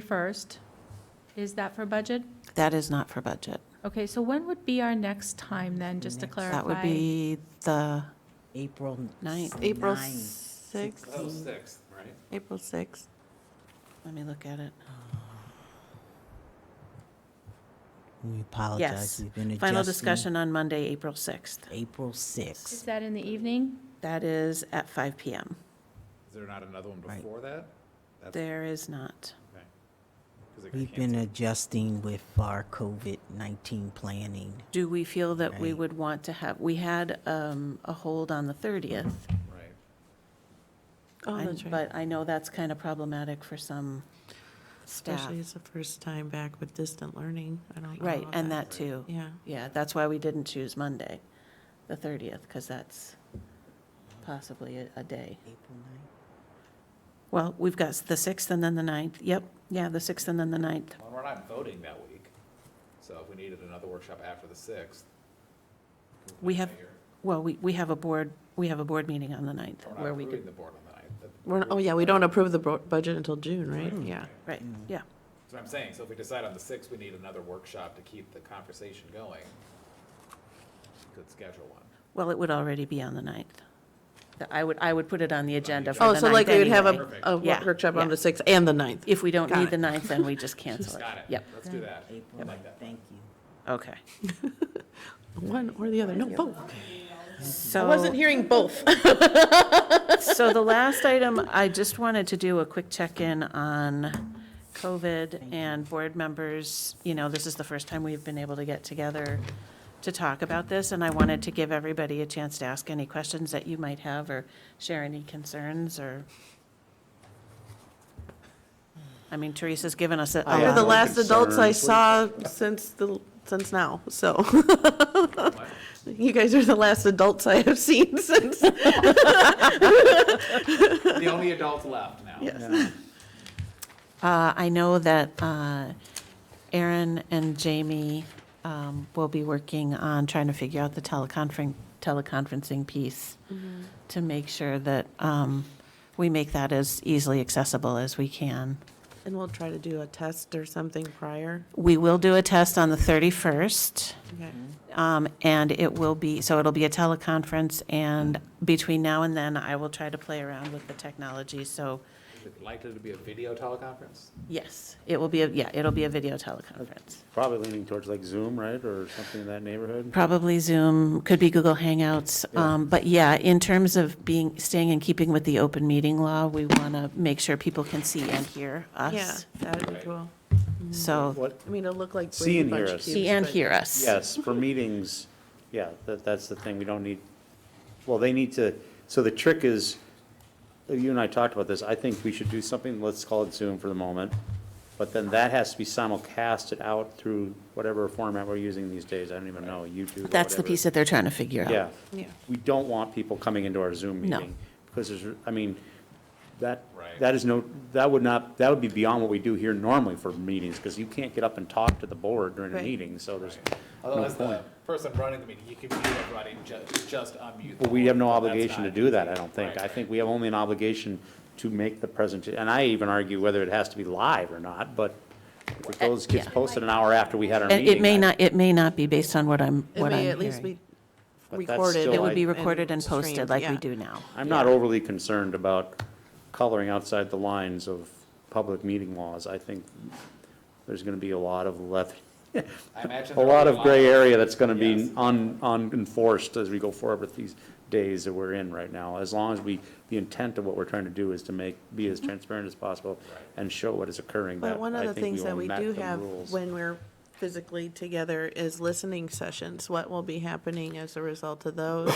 31st, is that for budget? That is not for budget. Okay, so when would be our next time then, just to Next- clarify? That would be the April ninth. ninth, April Nine. 6th, Oh, sixth, right? April 6th. let me look at it. We apologize. Yes. We've been Final adjusting. discussion on Monday, April 6th. April Is 6th. that in the evening? That is at 5 PM. Is there not another one Right. before that? That's- There is not. okay. 'Cause it got We've been canceled. adjusting with our COVID-19 planning. Do we feel that we Right. would want to have, we had um, a hold on the 30th. Right. Oh, I'm- that's right. But I know that's kind of problematic for some staff. Especially it's the first time back with distant learning. I don't know. Right, about and that too. Yeah. Yeah, that's why we didn't choose Monday, the 30th, because that's possibly a- a day. April ninth. Well, we've got the 6th and then the 9th. Yep, yeah, the 6th and then the 9th. Well, we're not voting that week, so if we needed another workshop after the sixth. We have- Well, we, we have a board, we have a board meeting on the 9th We're where not we approving could, the board on the ninth. That- We're, not- oh, yeah, we don't approve the bro- budget until June, right? Yeah. right, yeah. That's what I'm saying, so if we decide on the sixth, we need another workshop to keep the conversation going. We Could schedule one. Well, it would already be on the 9th. The- I would, I would put it on the agenda for Oh, the so like 9th we would have anyway. a, Perfect. a Yeah, workshop on yeah. the 6th and the 9th. If we don't Got need it. the 9th, then we just cancel it. Got it. Yep, Let's do that. I April like ninth. that. Thank you. okay. One or the other, no, both. I So. wasn't hearing both. Oh, So the last item, I just wanted to do a quick check-in on COVID and board members. You know, this is the first time we've been able to get together to talk about this, and I wanted to give everybody a chance to ask any questions that you might have or share any concerns or. I mean, Teresa's given us a a I They're lot. have the no last adults I concerns. saw since the, since now, so. You guys are the last adults I have seen since. The only adult left now. Uh, I know that uh, Aaron and Jamie um, will be working on trying to figure out the teleconferencing, teleconferencing piece to make sure that um, we make that as easily accessible as we can. And we'll try to do a test or something prior. We will do a test on the 31st, Okay. um, and it will be, so it'll be a teleconference, and between now and then, I will try to play around with the technology, so, Is it likely to be a video teleconference? yes, it will be, a yeah, it'll be a video teleconference. Probably leaning towards like Zoom, right, or something in that neighborhood? Probably Zoom, could be Google Hangouts. Um, But yeah, in terms of being, staying in keeping with the open meeting law, we want to make sure people can see and hear Yeah, us. that'd be cool. So, What? I mean, it'll look like. See and Brady hear Bunch us. cubes, see and but- hear us. Yes, for meetings, yeah, that, that's the thing, we don't need, well, they need to, so the trick is, you and I talked about this, I think we should do something, let's call it Zoom for the moment, but then that has to be simulcasted out through whatever format we're using these days, I don't even know, YouTube or That's the whatever. piece that they're trying to figure out. Yeah. Yeah. We don't want people coming into our Zoom No. meeting. Because there's, I mean, that, Right. that is no, that would not, that would be beyond what we do here normally for meetings, because you can't get up and talk to the board during a Right. meeting, so there's, Although No as the point. person running the meeting, you can mute everybody, ju- just unmute. well, them. we have no That's obligation to not- do that, I don't think. Right, I right. think we have only an obligation to make the presentation, and I even argue whether it has to be live or not, but if it goes, gets Uh, yeah. posted an hour after we had our And meeting. it may I- not, it may not be based on what I'm, It what I'm may hearing. at least be But that's recorded. still, It would be and- recorded and posted streamed, like we yeah. do now. I'm not overly concerned about coloring outside the lines of public meeting laws. I think there's going to be a lot of left, I imagine a there will lot be of gray area that's going to Yes. be un, unenforced as we go forward with these days that we're in right now. As long as we, the intent of what we're trying to do is to make, be Mm-hmm. as transparent as possible and show what is occurring. But that one of I the think things will that we met do the have rules. when we're physically together is listening sessions. What will be happening as a result of those?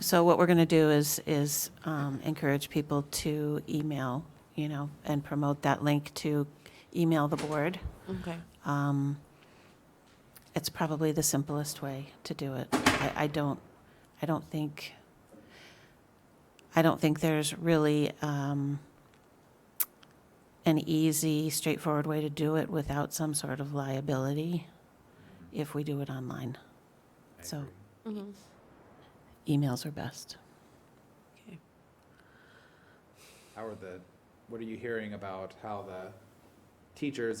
So what we're going to do is, is um, encourage people to email, you know, and promote that link to email the board. Okay. Um, It's probably the simplest way to do it. I, I don't, I don't think, I don't think there's really um, an easy, straightforward way to do it without some sort of liability if we do it online. I So agree. Mm-hmm. Mhm. emails are best. Okay. How are the, what are you hearing about how the teachers